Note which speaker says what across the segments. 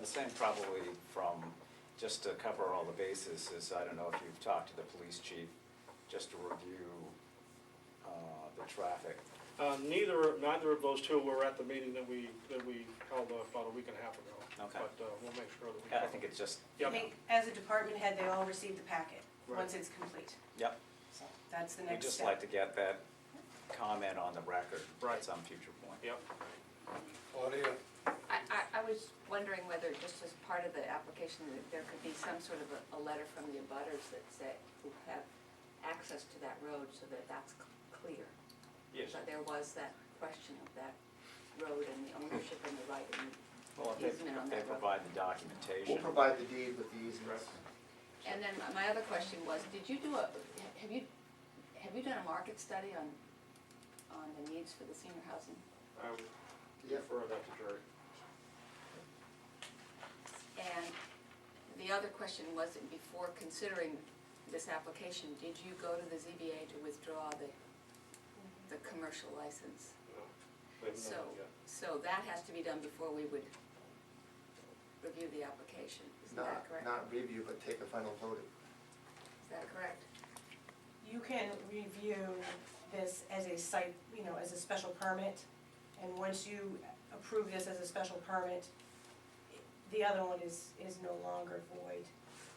Speaker 1: the same probably from, just to cover all the bases, is I don't know if you've talked to the police chief, just to review, uh, the traffic.
Speaker 2: Uh, neither, neither of those two were at the meeting that we, that we held about a week and a half ago.
Speaker 1: Okay.
Speaker 2: But, uh, we'll make sure that we.
Speaker 1: I think it's just,
Speaker 3: I
Speaker 2: Yep,
Speaker 3: think as a department head, they all receive the packet,
Speaker 2: Right.
Speaker 3: once it's complete.
Speaker 1: yep, so,
Speaker 3: That's the
Speaker 1: we'd
Speaker 3: next
Speaker 1: just
Speaker 3: step.
Speaker 1: like to get that comment on the record
Speaker 2: Right.
Speaker 1: at some future point.
Speaker 2: yep.
Speaker 4: Claudia,
Speaker 5: I, I, I was wondering whether just as part of the application, that there could be some sort of a, a letter from the abutters that say, who have access to that road so that that's c- clear.
Speaker 2: Yes.
Speaker 5: So there was that question of that road and the ownership and the right and,
Speaker 1: Well, if they,
Speaker 5: Easement on
Speaker 1: if they
Speaker 5: that road.
Speaker 1: provide the
Speaker 6: We'll
Speaker 1: documentation,
Speaker 6: provide the deed with the easements.
Speaker 5: and then my- my other question was, did you do a, have you, have you done a market study on, on the needs for the senior housing?
Speaker 2: I would
Speaker 6: Yep.
Speaker 2: refer that to Jerry.
Speaker 5: And the other question was, that before considering this application, did you go to the ZBA to withdraw the, the commercial license?
Speaker 2: No, we haven't
Speaker 5: So,
Speaker 2: done that yet.
Speaker 5: so that has to be done before we would review the application, isn't
Speaker 6: Not,
Speaker 5: that correct?
Speaker 6: not review, but take a final vote.
Speaker 5: Is that correct?
Speaker 3: You can review this as a site, you know, as a special permit, and once you approve this as a special permit, the other one is, is no longer void.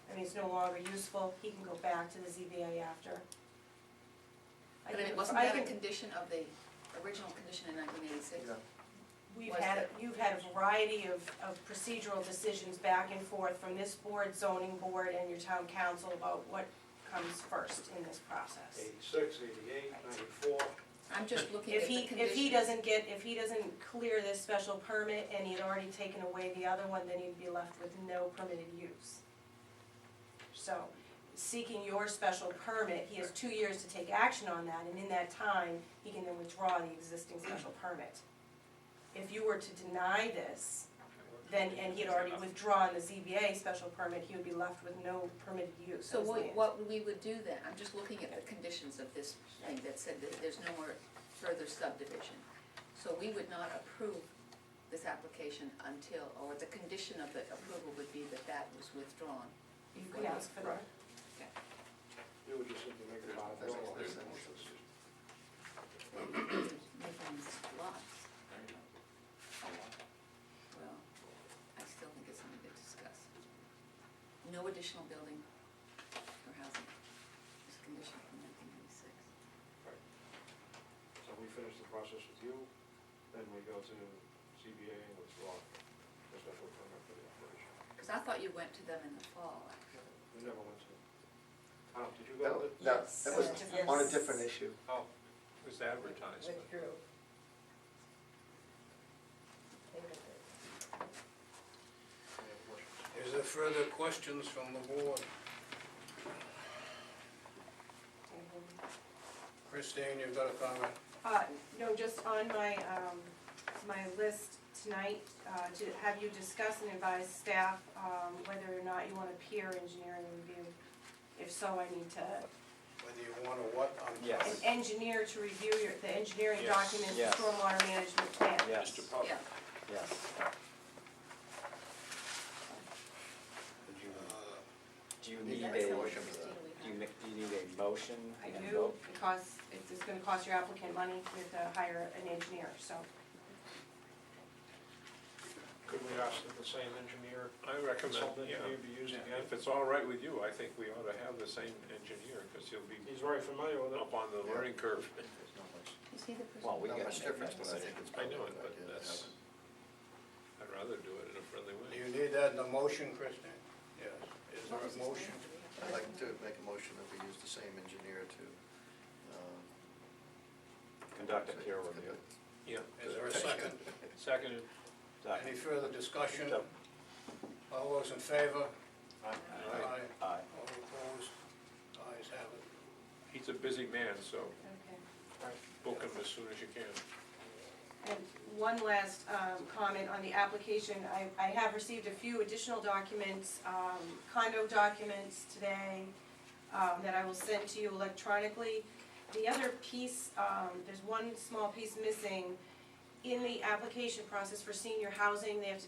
Speaker 3: I mean, it's no longer useful, he can go back to the ZBA after. I
Speaker 5: But I mean,
Speaker 3: can-
Speaker 5: wasn't
Speaker 3: I
Speaker 5: that a
Speaker 3: can-
Speaker 5: condition of the original condition in nineteen eighty-six?
Speaker 6: Yeah.
Speaker 3: We've
Speaker 5: was
Speaker 3: had,
Speaker 5: that-
Speaker 3: you've had a variety of, of procedural decisions back and forth from this board, zoning board, and your town council about what comes first in this process.
Speaker 4: eighty-six, eighty-eight, ninety-four.
Speaker 5: I'm just looking at
Speaker 3: If
Speaker 5: the
Speaker 3: he,
Speaker 5: condition.
Speaker 3: if he doesn't get, if he doesn't clear this special permit and he had already taken away the other one, then he'd be left with no permitted use. So, seeking your special permit, he has two years to take action on that, and in that time, he can then withdraw the existing special permit. If you were to deny this, then, and he had already withdrawn the ZBA special permit, he would be left with no permitted use.
Speaker 5: So
Speaker 3: as
Speaker 5: what,
Speaker 3: land.
Speaker 5: what we would do then, I'm just looking at the conditions of this thing that said that there's no more further subdivision. So we would not approve this application until, or the condition of the approval would be that that was withdrawn.
Speaker 3: You could ask for that.
Speaker 2: You would just simply make a
Speaker 6: That's
Speaker 2: modification.
Speaker 6: what this is.
Speaker 5: Making these lots. Well, I still think it's something to discuss. No additional building or housing, this condition from nineteen ninety-six.
Speaker 2: So we finish the process with you, then we go to CBA and withdraw the special permit for the operation.
Speaker 5: Because I thought you went to them in the fall, actually.
Speaker 2: We never went to, Tom, did you
Speaker 6: That,
Speaker 2: go to?
Speaker 6: that- that was
Speaker 3: Yes.
Speaker 6: on a different issue.
Speaker 2: Oh,
Speaker 4: It was advertisement.
Speaker 2: any other questions?
Speaker 4: Is there further questions from the board? Christine, you've got a comment?
Speaker 3: Uh, no, just on my, um, my list tonight, uh, to have you discuss and advise staff, um, whether or not you want a peer engineering review. If so, I need to,
Speaker 4: Whether you want to what, I'm
Speaker 1: Yes.
Speaker 4: sorry.
Speaker 3: an engineer to review your, the engineering
Speaker 4: Yes,
Speaker 3: documents, the
Speaker 1: yes.
Speaker 3: stormwater management plan.
Speaker 1: yes,
Speaker 5: Yeah.
Speaker 1: yes.
Speaker 4: Uh,
Speaker 1: Do you
Speaker 5: Is
Speaker 1: need a,
Speaker 5: that
Speaker 1: do
Speaker 5: something,
Speaker 1: you,
Speaker 5: Christine, we have?
Speaker 1: ne- do you need a motion?
Speaker 3: I
Speaker 1: and
Speaker 3: do,
Speaker 1: vote?
Speaker 3: because it's, it's gonna cost your applicant money you have to hire an engineer, so.
Speaker 2: Could we ask that the same engineer,
Speaker 7: I recommend,
Speaker 2: consultant
Speaker 7: yeah,
Speaker 2: engineer be used again?
Speaker 7: if it's all right with you, I think we ought to have the same engineer, because he'll be
Speaker 2: He's very familiar with it.
Speaker 7: up on the learning curve.
Speaker 5: Is he the person?
Speaker 1: Well, we
Speaker 6: Not
Speaker 1: gotta
Speaker 6: much
Speaker 1: make
Speaker 6: difference,
Speaker 1: that
Speaker 6: but I
Speaker 1: decision.
Speaker 6: think it's
Speaker 7: I
Speaker 6: probably
Speaker 7: know it,
Speaker 6: a good
Speaker 7: but
Speaker 6: idea to
Speaker 7: that's,
Speaker 6: have
Speaker 7: I'd rather do it in a friendly
Speaker 4: Do
Speaker 7: way.
Speaker 4: you need that in a motion, Christine? Yes. Is there
Speaker 5: What was his
Speaker 4: a
Speaker 5: name?
Speaker 4: motion?
Speaker 5: Do we
Speaker 6: it.
Speaker 5: have-
Speaker 6: I'd like to make a motion that we use the same engineer to, uh, um.
Speaker 1: Conduct a peer review.
Speaker 7: Yeah.
Speaker 4: Is there a second?
Speaker 7: Seconded.
Speaker 1: Doc-
Speaker 4: Any further discussion?
Speaker 1: Doc-
Speaker 4: All those in favor?
Speaker 7: Aye.
Speaker 1: Aye.
Speaker 4: All opposed? Ayes have it.
Speaker 7: He's a busy man, so
Speaker 3: Okay.
Speaker 7: book him as soon as you can.
Speaker 3: And one last um, comment on the application. I, I have received a few additional documents, um, condo documents today um, that I will send to you electronically. The other piece, um, there's one small piece missing. In the application process for senior housing, they have to